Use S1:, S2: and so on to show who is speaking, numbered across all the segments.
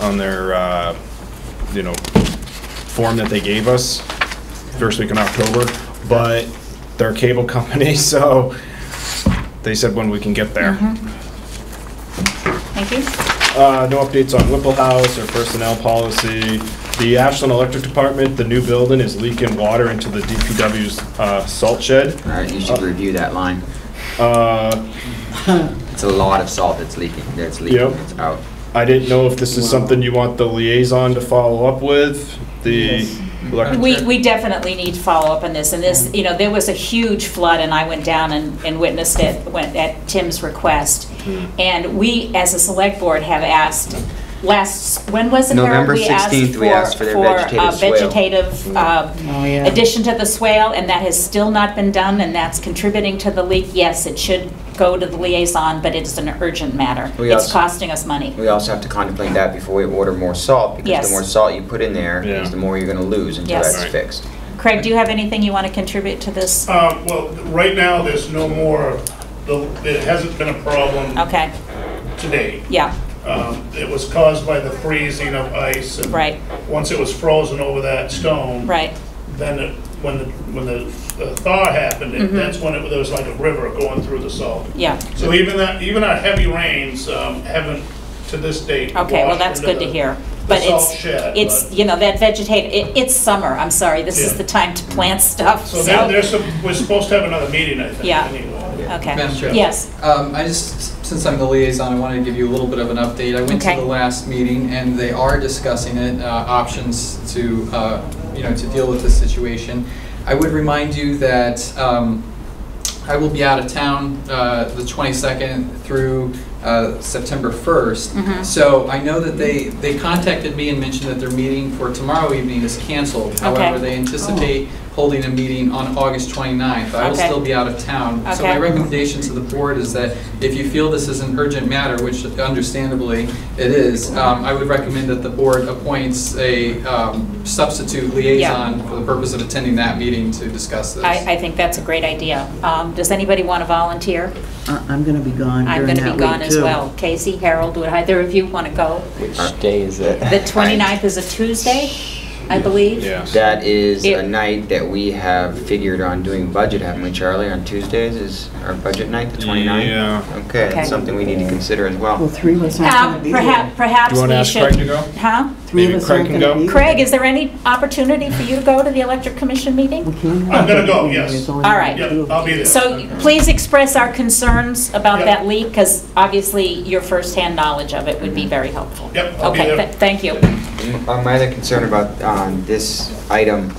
S1: on their, uh, you know, form that they gave us, first week in October, but they're a cable company, so they said when we can get there.
S2: Thank you.
S1: Uh, no updates on Whipple House or personnel policy. The Ashland Electric Department, the new building is leaking water into the DPW's, uh, salt shed.
S3: All right, you should review that line.
S1: Uh,
S3: It's a lot of salt that's leaking, that's leaking,
S1: Yep.
S3: it's out.
S1: I didn't know if this is something you want the liaison to follow up with, the electric.
S2: We, we definitely need to follow up on this, and
S3: Mm-hmm.
S2: this, you know, there was a huge flood, and I went down and, and witnessed it, went at Tim's request.
S3: Mm-hmm.
S2: And we, as a select board, have asked, last, when was it? Harold?
S3: November
S2: We asked
S3: 16th, we asked for their
S2: uh,
S3: vegetative swale. Mm-hmm.
S2: Vegetative, uh,
S4: Oh, yeah.
S2: addition to the swale, and that has still not been done, and that's contributing to the leak. Yes, it should go to the liaison, but it's an urgent matter.
S3: We
S2: It's
S3: also-
S2: costing us money.
S3: We also have to contemplate that before we order more salt, because
S2: Yes.
S3: the more salt you put in there,
S1: Yeah.
S3: is the more you're gonna lose until
S2: Yes.
S3: that's
S1: Right.
S3: fixed.
S2: Craig, do you have anything you want to contribute to this?
S5: Uh, Well, right now, there's no more, the- there hasn't been a problem
S2: Okay,
S5: today.
S2: yeah,
S5: Um, It was caused by the freezing of ice. and
S2: Right.
S5: Once it was frozen over that stone.
S2: right.
S5: Then it- when the, when the the thaw happened, it- that's when it, there was like a river going through the salt.
S2: Mm-hmm. Yeah,
S5: So even that, even our heavy rains um, haven't, to this date.
S2: okay, well,
S5: washed
S2: that's
S5: into
S2: good to
S5: the-
S2: hear.
S5: the
S2: But
S5: salt
S2: it's,
S5: shed,
S2: it's,
S5: but-
S2: you know, that vegetate, it, it's summer, I'm sorry, this is
S5: Yeah.
S2: the time to plant stuff,
S5: So there-
S2: so,
S5: there's, some- we're supposed to have another meeting, I think.
S2: Yeah.
S5: anyway.
S6: Madam
S2: okay.
S6: Chair.
S2: Yes,
S6: Um, I just, since I'm the liaison, I wanted to give you a little bit of an update. I went to
S2: Okay.
S6: the last meeting, and they are discussing it, uh, options to, uh, you know, to deal with this situation. I would remind you that um, I will be out of town uh, the 22nd through uh, September
S2: Mm-hmm.
S6: 1st. So I know that they, they contacted me and mentioned that their meeting for tomorrow evening is canceled. However, they anticipate holding a meeting on August 29th. I will
S2: Oh. Okay.
S6: still be out of town. So
S2: Okay.
S6: my recommendation to the board is that if you feel this is an urgent matter, which understandably it is, um, I would recommend that the board appoints a um, substitute liaison for the purpose of attending that meeting to discuss this.
S2: I, I think that's a great idea. Um, does anybody want to volunteer?
S4: I- I'm going to be gone
S2: I'm going
S4: during that week, too.
S2: to be gone as well. Casey, Harold, would either of you want to go?
S7: Which day is it?
S2: The 29th is a Tuesday, I believe?
S1: Yeah.
S3: That is
S2: It-
S3: a night that we have figured on doing budget, haven't we, Charlie? On Tuesdays is our budget night, the 29th?
S1: Yeah.
S3: Okay,
S2: Okay.
S3: that's something we need to consider as well.
S4: Well, three of us
S2: Uh,
S4: aren't going to be
S2: perhaps,
S4: here.
S2: perhaps
S1: Do you want to
S2: we
S1: ask Craig to
S2: should.
S1: go?
S2: Huh?
S4: Three of
S1: maybe
S4: us aren't
S1: Craig can
S4: gonna
S1: go?
S4: be here.
S2: Craig, is there any opportunity for you to go to the electric commission meeting?
S4: We can't have
S5: I'm gonna
S4: that
S5: go,
S4: meeting.
S5: yes.
S4: There's only
S2: All right.
S4: two of
S5: Yeah,
S4: us.
S5: I'll be there.
S2: So please express our concerns about
S5: Yep.
S2: that leak, because obviously your firsthand knowledge of it would be very helpful.
S5: Mm-hmm. Yep, I'll be
S2: Okay,
S5: there.
S2: th- thank you.
S3: Uh, My other concern about um, this item,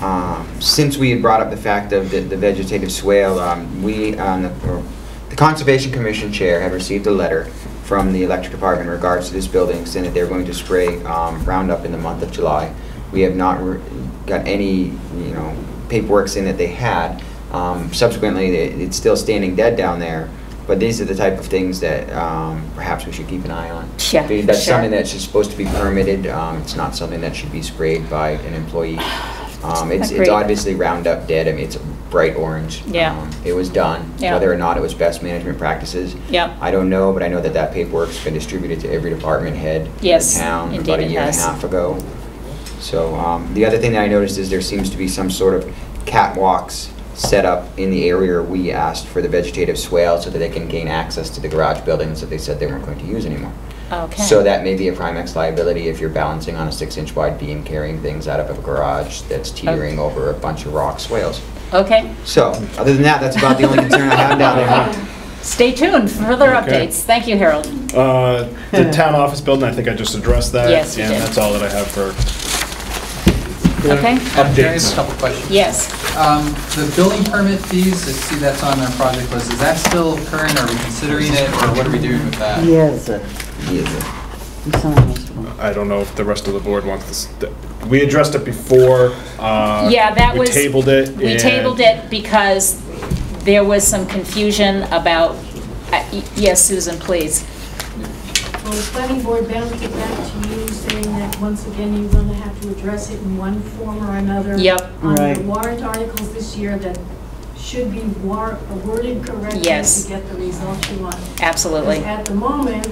S3: um, since we had brought up the fact of the the vegetative swale, um, we, um, the or the Conservation Commission Chair had received a letter from the Electric Department in regards to this building, saying that they're going to spray um, Roundup in the month of July. We have not re- got any, you know, paperwork saying that they had. Um, Subsequently, it- it's still standing dead down there, but these are the type of things that um, perhaps we should keep an eye on.
S2: Yeah,
S3: Because That's
S2: sure.
S3: something that that's just supposed to be permitted, um, it's not something that should be sprayed by an employee. Um, it's,
S2: Agreed.
S3: it's obviously Roundup dead, I mean, it's bright orange.
S2: Yeah.
S3: Um, It was done,
S2: Yeah.
S3: whether or not it was best management practices.
S2: Yep.
S3: I don't know, but I know that that paperwork's been distributed to every department head.
S2: Yes,
S3: In town
S2: indeed
S3: about a
S2: it
S3: year and a
S2: has.
S3: half ago. So, um, the other thing that I noticed is there seems to be some sort of catwalks set up in the area we asked for the vegetative swale so that they can gain access to the garage buildings that they said they weren't going to use anymore.
S2: Okay.
S3: So that may be a Primex liability if you're balancing on a six-inch wide beam carrying things out of a garage that's teetering over a bunch of rock swales.
S2: Okay,
S3: So, other than that, that's about the only concern I have down
S1: Uh-huh.
S3: there.
S2: stay tuned for further
S1: Okay.
S2: updates. Thank you, Harold.
S1: Uh, The town office building, I think I just addressed that.
S2: Yes, you
S1: And
S2: did.
S1: that's all that I have for
S2: Okay,
S6: Madam Chair, I have
S1: Updates.
S6: a couple questions.
S2: yes.
S6: Um, The building permit fees, I see that's on our project list. Is that still current? Are we considering it, or what are we doing with that?
S4: Yes, uh,
S3: Yeah,
S4: we signed this one.
S1: I don't know if the rest of the board wants this, th- we addressed it before. uh,
S2: Yeah, that was.
S1: We tabled it.
S2: We
S1: and-
S2: tabled it because there was some confusion about, uh, y- yes, Susan, please.
S8: Well, the planning board bounced it back to you, saying that once again, you're going to have to address it in one form or another.
S2: Yep.
S8: On the
S4: Right.
S8: warrant articles this year that should be war- worded correctly
S2: Yes.
S8: to get the result you want.
S2: Absolutely.
S8: Because At the moment,